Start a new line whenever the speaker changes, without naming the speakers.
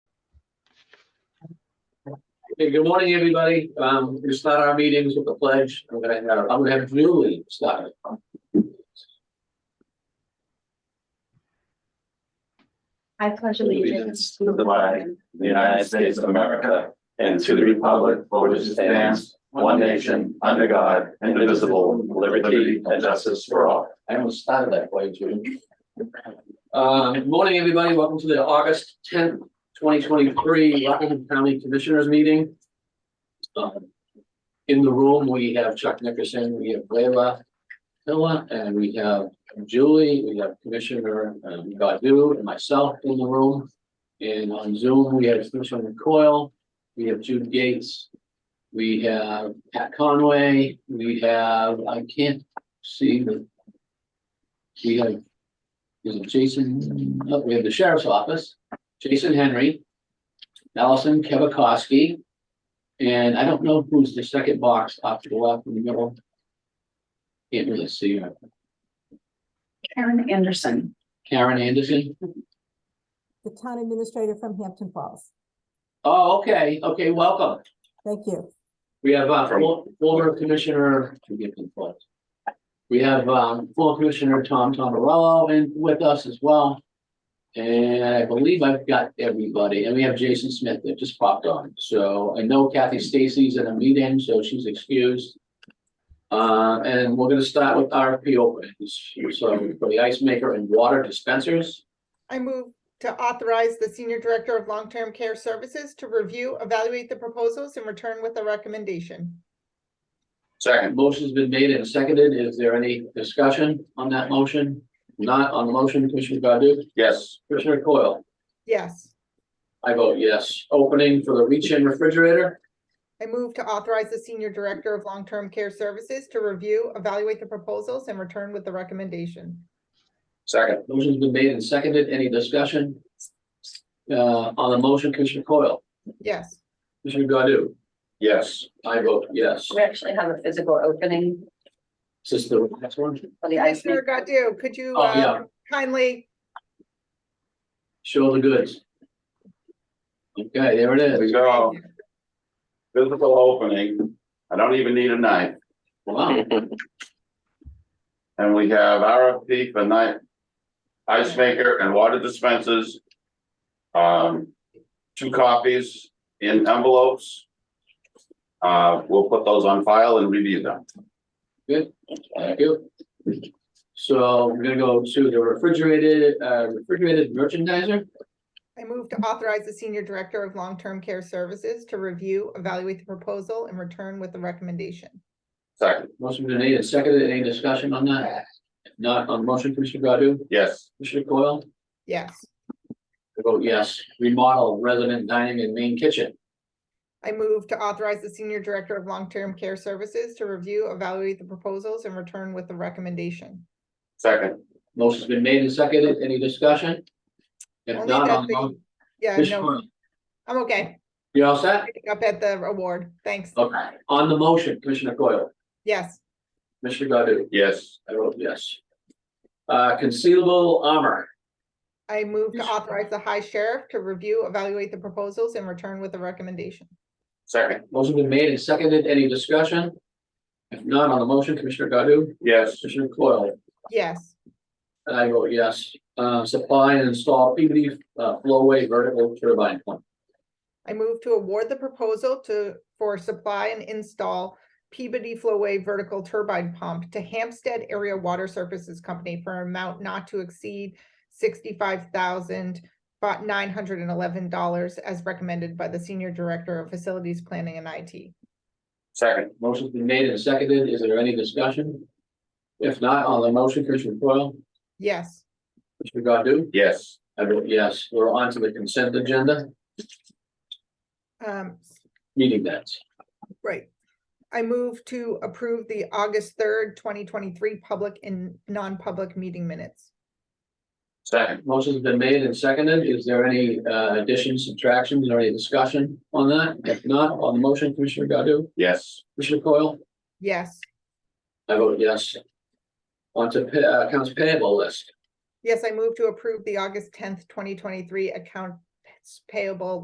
Hey, good morning, everybody. Um, we start our meetings with the pledge. I'm gonna have, I'm gonna have Julie start. it.
I pledge
allegiance to the flag the United States of America and to the republic for which it stands, one nation, under God, indivisible, with liberty and justice for all.
I almost started that way, Julie. Uh, good morning, everybody. Welcome to the August tenth, twenty twenty-three Rockingham County Commissioners Meeting. Um, In the room, we have Chuck Nickerson, we have Leila Hilla, and we have Julie, we have Commissioner um, Godu and myself in the room. And on Zoom, we have Commissioner Coyle, we have Jude Gates, we have Pat Conway, we have, I can't see the we have, is it Jason, no, we have the sheriff's office, Jason Henry, Allison Kevakowski, and I don't know who's the second box up to the left in the middle. Can't really see her.
Karen Anderson.
Karen Anderson.
the town administrator from Hampton Falls.
Oh, okay, okay, welcome.
Thank you.
We have uh, for- former commissioner, forgive me, but we have um, former commissioner Tom Tomarello in with us as well. And I believe I've got everybody, and we have Jason Smith that just popped on. So I know Kathy Stacy's in a meeting, so she's excused. Uh, and we're gonna start with RFP openings, so for the ice maker and water dispensers.
I move to authorize the Senior Director of Long-Term Care Services to review, evaluate the proposals and return with a recommendation.
Second.
Motion's been made and seconded. Is there any discussion on that motion? Not on the motion, Commissioner Godu?
Yes.
Commissioner Coyle?
Yes,
I vote yes. Opening for the reach-in refrigerator.
I move to authorize the Senior Director of Long-Term Care Services to review, evaluate the proposals and return with the recommendation.
Second.
Motion's been made and seconded. Any discussion? Uh, on the motion, Commissioner Coyle,
Yes,
Commissioner Godu,
Yes.
I vote yes.
We actually have a physical opening
Is this the next one?
for the ice
Commissioner
maker.
Godu, could you
Oh, yeah.
uh, kindly,
Show the goods. Okay, there it is.
We go. Physical opening. I don't even need a knife.
Wow,
And we have RFP for night. Ice maker and water dispensers. Um, two copies in envelopes. Uh, we'll put those on file and review them.
thank you. So we're gonna go to the refrigerated, uh, refrigerated merchandiser.
I move to authorize the Senior Director of Long-Term Care Services to review, evaluate the proposal and return with the recommendation.
Second,
Motion been made and seconded. Any discussion on that? If Not on the motion, Commissioner Godu,
yes,
Commissioner Coyle?
Yes.
I vote yes, remodel resident dining and main kitchen.
I move to authorize the Senior Director of Long-Term Care Services to review, evaluate the proposals and return with a recommendation.
second,
Motion's been made and seconded. Any discussion? If
Only
not,
that
on
the-
the
Yeah, no,
motion,
I'm okay.
you all set?
Picking Up at the award. Thanks.
Okay, on the motion, Commissioner Coyle,
Yes,
Commissioner Godu,
yes,
I vote yes. Uh, concealable armor,
I move to
Yes.
authorize the High Sheriff to review, evaluate the proposals and return with a recommendation.
second,
motion been made and seconded. Any discussion? If not, on the motion, Commissioner Godu,
yes,
Commissioner Coyle,
Yes,
and I vote yes. Uh, supply and install PVD uh, flowway vertical turbine pump.
I move to award the proposal to, for supply and install Peabody Flowway Vertical Turbine Pump to Hampstead Area Water Services Company for an amount not to exceed sixty-five thousand but nine hundred and eleven dollars as recommended by the Senior Director of Facilities Planning and IT.
second,
Motion's been made and seconded. Is there any discussion? If not, on the motion, Commissioner Coyle,
Yes,
Commissioner Godu?
yes,
I vote yes. We're on to the consent agenda,
um,
meeting minutes.
Right. I move to approve the August third, twenty twenty-three public and non-public meeting minutes.
second,
Motion's been made and seconded. Is there any uh, additions, subtractions, or any discussion on that? If not, on the motion, Commissioner Godu?
yes,
Commissioner Coyle?
Yes,
I vote yes. On to pa- uh, accounts payable list.
yes, I move to approve the August tenth, twenty twenty-three accounts payable